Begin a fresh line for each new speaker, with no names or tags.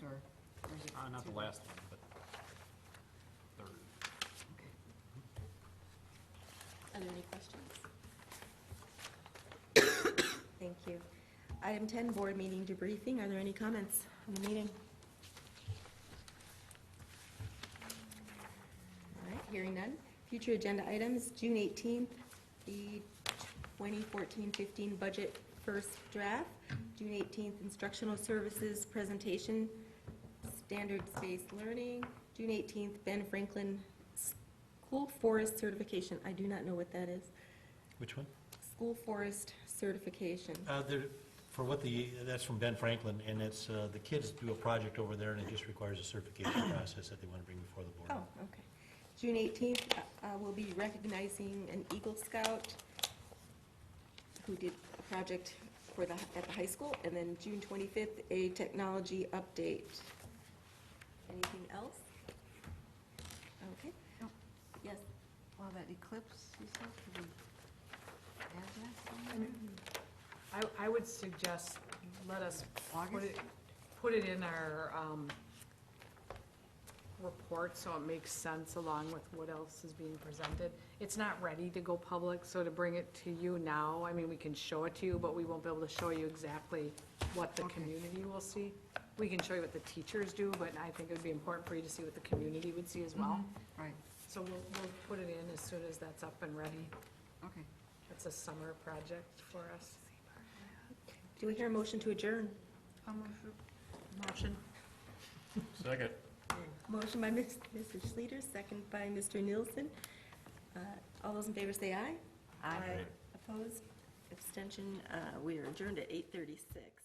Uh, not the last one, but third.
Are there any questions?
Thank you. Item 10, board meeting debriefing. Are there any comments on the meeting? All right, hearing none. Future agenda items, June 18th, the 2014-15 budget first draft. June 18th, instructional services presentation, standards-based learning. June 18th, Ben Franklin School Forest Certification. I do not know what that is.
Which one?
School Forest Certification.
Uh, there, for what the, that's from Ben Franklin, and it's, uh, the kids do a project over there, and it just requires a certification process that they want to bring before the
Oh,
board.
okay. June 18th, uh, uh, we'll be recognizing an Eagle Scout who did a project for the, at the high school, and then June 25th, a technology update. Anything else? Okay.
No.
Yes,
Well, that eclipse, you said, could we add that somewhere?
I, I would suggest, let us put
August?
it, put it in our, um, report, so it makes sense along with what else is being presented. It's not ready to go public, so to bring it to you now, I mean, we can show it to you, but we won't be able to show you exactly what the
Okay.
community will see. We can show you what the teachers do, but I think it would be important for you to see what the community would see as well.
Right,
So we'll, we'll put it in as soon as that's up and ready.
okay.
It's a summer project for us.
do we hear a motion to adjourn?
Motion.
Second.
Motion by Ms. Mr. Schleter, second by Mr. Nielsen. Uh, All those in favor say aye.
Aye.
Opposed? Abstention? Uh, We are adjourned at 8:36.